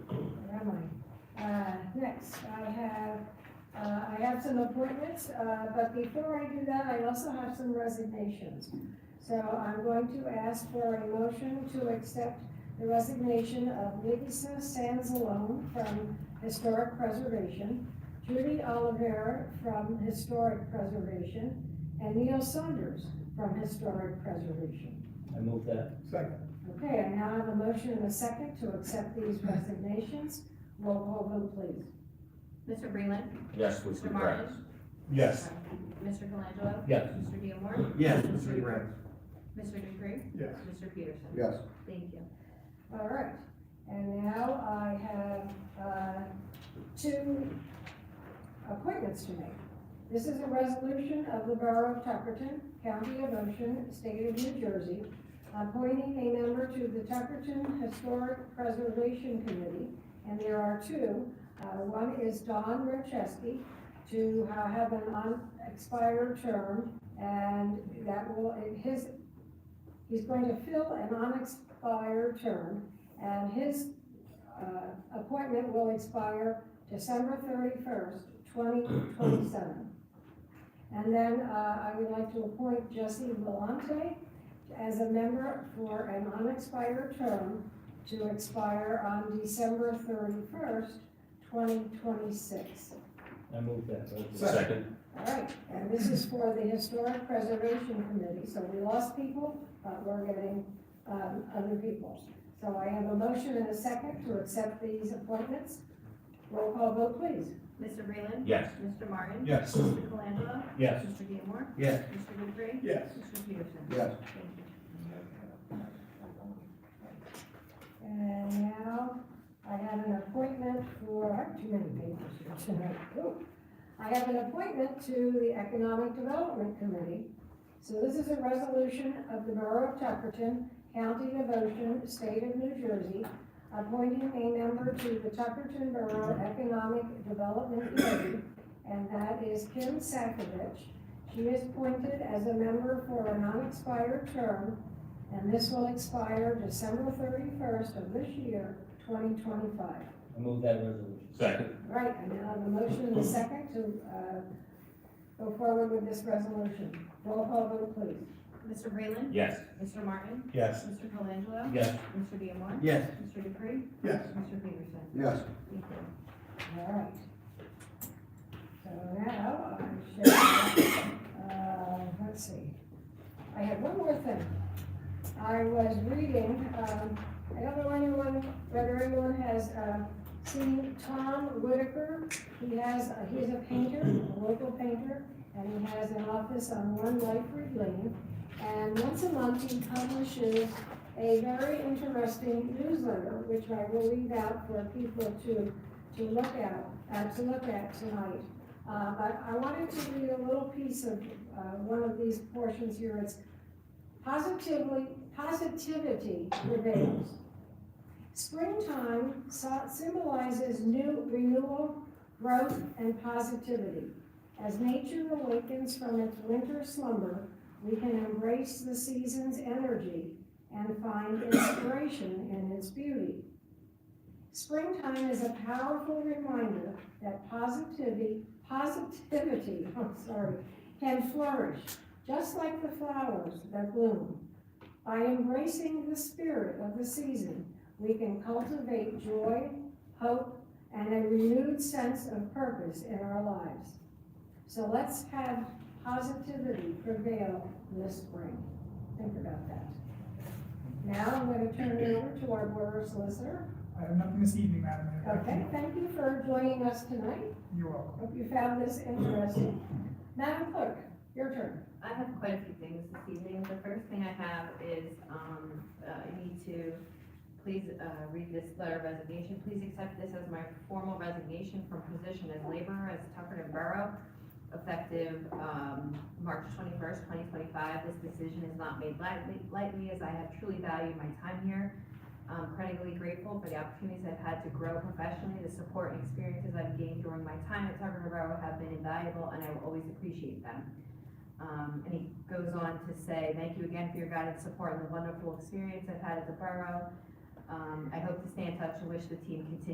Uh, next, I have, uh, I have some appointments, uh, but before I do that, I also have some resignations. So I'm going to ask for a motion to accept the resignation of Lisa Sansalone from Historic Preservation, Judy Oliver from Historic Preservation, and Neil Saunders from Historic Preservation. I move that. Second. Okay, I now have a motion and a second to accept these resignations. Roll call vote, please. Mr. Breland. Yes, with Mr. Martin. Yes. Mr. Colangelo. Yes. Mr. Diemar. Yes, Mr. Dupree. Mr. Dupree. Yes. Mr. Peterson. Yes. Thank you. All right, and now I have, uh, two appointments to make. This is a resolution of the Borough of Tuckerton, County of Ocean, State of New Jersey, appointing a member to the Tuckerton Historic Preservation Committee, and there are two. Uh, one is Don Rochesky to uh, have an unexpired term, and that will, his, he's going to fill an unexpired term, and his uh, appointment will expire December thirty-first, twenty twenty-seven. And then uh, I would like to appoint Jesse Vellante as a member for an unexpired term to expire on December thirty-first, twenty twenty-six. I move that. Second. All right, and this is for the Historic Preservation Committee, so we lost people, but we're getting, um, other people. So I have a motion and a second to accept these appointments. Roll call vote, please. Mr. Breland. Yes. Mr. Martin. Yes. Mr. Colangelo. Yes. Mr. Diemar. Yes. Mr. Dupree. Yes. Mr. Peterson. Yes. Thank you. And now, I have an appointment for, I have too many papers here tonight. Ooh. I have an appointment to the Economic Development Committee. So this is a resolution of the Borough of Tuckerton, County of Ocean, State of New Jersey, appointing a member to the Tuckerton Borough Economic Development Committee, and that is Kim Sakovich. She is appointed as a member for a non-expired term and this will expire December thirty-first of this year, twenty twenty-five. I move that resolution. Second. Right, I now have a motion and a second to, uh, go forward with this resolution. Roll call vote, please. Mr. Breland. Yes. Mr. Martin. Yes. Mr. Colangelo. Yes. Mr. Diemar. Yes. Mr. Dupree. Yes. Mr. Peterson. Yes. Thank you. All right. So now, I should, uh, let's see. I have one more thing. I was reading, um, I don't know anyone, whether anyone has, uh, seen Tom Whitaker. He has, uh, he's a painter, a local painter, and he has an office on One Lightbridge Lane. And once a month, he publishes a very interesting newsletter, which I will read out for people to to look at, uh, to look at tonight. Uh, but I wanted to read a little piece of, uh, one of these portions here. It's positively, positivity prevails. Springtime so- symbolizes new renewal, growth, and positivity. As nature awakens from its winter slumber, we can embrace the season's energy and find inspiration in its beauty. Springtime is a powerful reminder that positivity, positivity, I'm sorry, can flourish, just like the flowers that bloom. By embracing the spirit of the season, we can cultivate joy, hope, and a renewed sense of purpose in our lives. So let's have positivity prevail this spring. Think about that. Now I'm going to turn it over to our board solicitor, I have nothing this evening, Madam Mayor. Okay, thank you for joining us tonight. You're welcome. Hope you found this interesting. Madam Clerk, your turn. I have quite a few things this evening. The first thing I have is, um, uh, I need to please, uh, read this letter of resignation. Please accept this as my formal resignation from position as laborer as Tuckerton Borough, effective, um, March twenty-first, twenty twenty-five. This decision is not made lightly, lightly, as I have truly valued my time here. I'm incredibly grateful for the opportunities I've had to grow professionally. The support and experiences I've gained during my time at Tuckerton Borough have been invaluable, and I will always appreciate them. Um, and he goes on to say, thank you again for your guidance, support, and the wonderful experience I've had at the borough. Um, I hope to stay in touch and wish the team continued